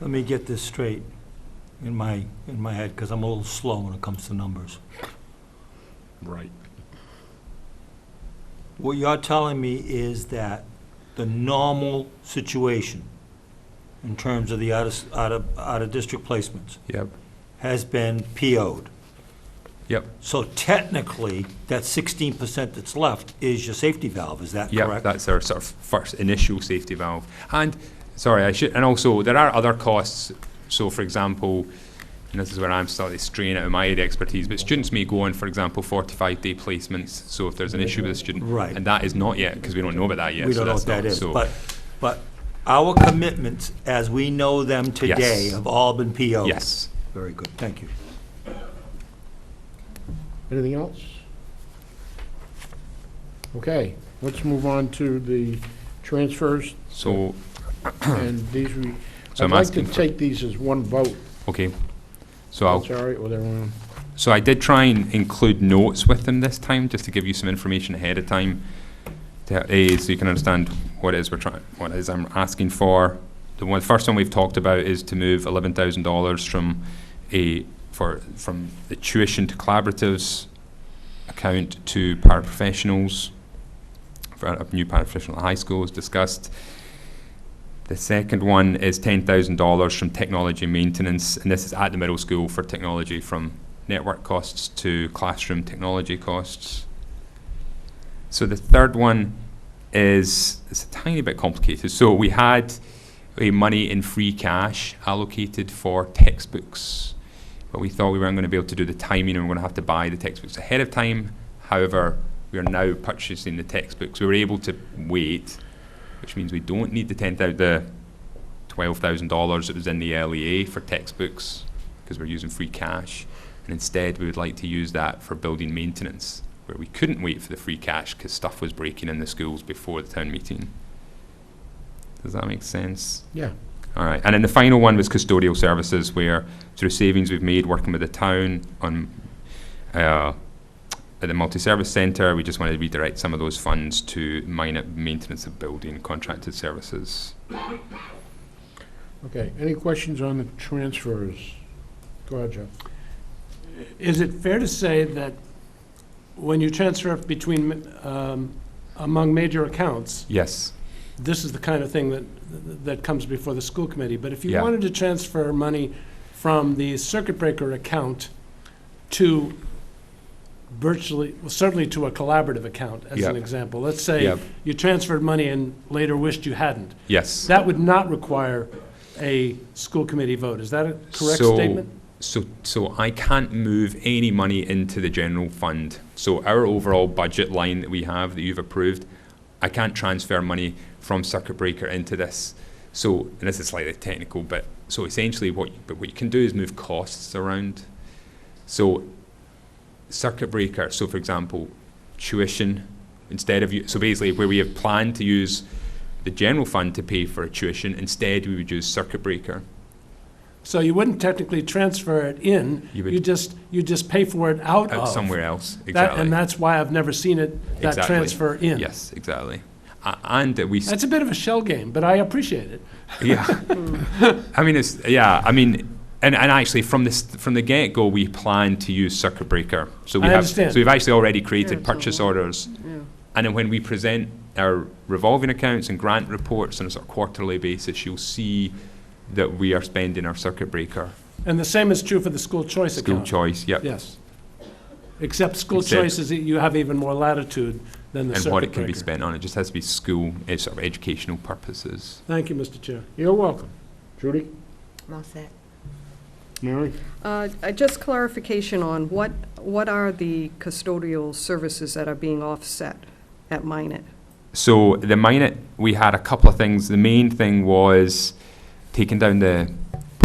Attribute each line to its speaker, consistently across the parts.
Speaker 1: Let me get this straight in my, in my head, because I'm a little slow when it comes to numbers.
Speaker 2: Right.
Speaker 1: What you're telling me is that the normal situation in terms of the out of, out of, out of district placements
Speaker 2: Yep,
Speaker 1: has been PO'd.
Speaker 2: yep,
Speaker 1: So technically, that sixteen percent that's left is your safety valve, is that
Speaker 2: yep.
Speaker 1: correct?
Speaker 2: That's our sort of first initial safety valve. And, sorry, I should, and also, there are other costs. So, for example, and this is where I'm slightly straying out of my area of expertise, but students may go on, for example, 45-day placements. So if there's an issue with a student.
Speaker 1: Right.
Speaker 2: And that is not yet, because we don't know about that yet.
Speaker 1: We
Speaker 2: so
Speaker 1: don't know
Speaker 2: that's
Speaker 1: what that
Speaker 2: not-
Speaker 1: is,
Speaker 2: so-
Speaker 1: but, but our commitments, as we know them today,
Speaker 2: Yes.
Speaker 1: have all been PO'd.
Speaker 2: Yes.
Speaker 1: Very good, thank you.
Speaker 3: Anything else? Okay, let's move on to the transfers,
Speaker 2: So,
Speaker 3: and these we,
Speaker 2: So
Speaker 3: I'd
Speaker 2: I'm
Speaker 3: like to
Speaker 2: asking for-
Speaker 3: take these as one vote.
Speaker 2: okay. So I'll
Speaker 3: Sorry, or they're on.
Speaker 2: So I did try and include notes with them this time, just to give you some information ahead of time, to, eh, so you can understand what it is we're trying, what it is I'm asking for. The one, first one we've talked about is to move eleven thousand dollars from a for from the tuition to collaboratives account to paraprofessionals for a new paraprofessional at high school as discussed. The second one is ten thousand dollars from technology maintenance, and this is at the middle school for technology from network costs to classroom technology costs. So the third one is it's a tiny bit complicated. So we had a money in free cash allocated for textbooks, but we thought we weren't going to be able to do the timing and we are going to have to buy the textbooks ahead of time. However, we are now purchasing the textbooks. We were able to wait, which means we don't need the ten thousand, the twelve thousand dollars that was in the LEA for textbooks because we're using free cash. And instead, we would like to use that for building maintenance, where we couldn't wait for the free cash because stuff was breaking in the schools before the town meeting. Does that make sense?
Speaker 3: Yeah,
Speaker 2: All right. And then the final one was custodial services, where through savings we've made working with the town on uh, at the multi-service centre, we just want to redirect some of those funds to minor maintenance of building contracted services.
Speaker 3: okay. Any questions on the transfers? Go ahead, Jeff.
Speaker 4: Is it fair to say that when you transfer between, um, among major accounts,
Speaker 2: Yes.
Speaker 4: this is the kind of thing that, that comes before the school committee? But if you
Speaker 2: Yeah.
Speaker 4: wanted to transfer money from the circuit breaker account to virtually, well, certainly to a collaborative account, as an
Speaker 2: Yeah.
Speaker 4: example, let's say
Speaker 2: Yep.
Speaker 4: you transferred money and later wished you hadn't,
Speaker 2: Yes.
Speaker 4: that would not require a school committee vote. Is that a correct
Speaker 2: So-
Speaker 4: statement?
Speaker 2: So, so I can't move any money into the general fund. So our overall budget line that we have that you've approved, I can't transfer money from circuit breaker into this. So, and this is slightly technical, but so essentially what, you- but what you can do is move costs around. So circuit breaker, so for example, tuition, instead of, you- so basically where we have planned to use the general fund to pay for a tuition, instead we would use circuit breaker.
Speaker 4: So you wouldn't technically transfer it in,
Speaker 2: You would-
Speaker 4: you just, you just pay for it out
Speaker 2: out
Speaker 4: of.
Speaker 2: somewhere else. Exactly.
Speaker 4: Oh. That- And that's why I've never seen it, that
Speaker 2: Exactly.
Speaker 4: transfer in.
Speaker 2: Yes, exactly. A- And that we, s-
Speaker 4: That's a bit of a shell game, but I appreciate it.
Speaker 2: yeah. I mean, it's, yeah, I mean, and, and actually, from this, from the get-go, we plan to use circuit breaker. So we
Speaker 4: I
Speaker 2: have,
Speaker 4: understand.
Speaker 2: so we've actually already created
Speaker 5: it's all
Speaker 2: purchase
Speaker 5: right.
Speaker 2: orders. And then when we present our revolving accounts and grant reports on a sort of quarterly basis, you'll see that we are spending our circuit breaker.
Speaker 4: And the same is true for the school choice
Speaker 2: School
Speaker 4: account.
Speaker 2: choice, yep.
Speaker 4: Yes. Except school
Speaker 2: Except-
Speaker 4: choice is, you have even more latitude than the
Speaker 2: And
Speaker 4: circuit breaker.
Speaker 2: what it can be spent on. It just has to be school, eh, sort of educational purposes.
Speaker 4: Thank you, Mr. Chair.
Speaker 3: You're welcome. Judy?
Speaker 5: I'm all set.
Speaker 3: Mary?
Speaker 6: Uh, uh, Just clarification on what, what are the custodial services that are being offset at Minnet?
Speaker 2: So the minute we had a couple of things. The main thing was taking down the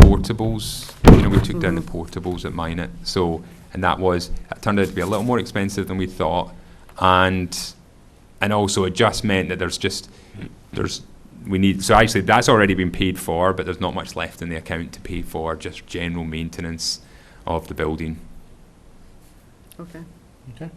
Speaker 2: portables. You know, we took down the portables at minute. So and that was it turned out to be a little more expensive than we thought, and and also it just meant that there's just there's we need so actually that's already been paid for, but there's not much left in the account to pay for just general maintenance of the building.
Speaker 6: Okay.
Speaker 3: Okay.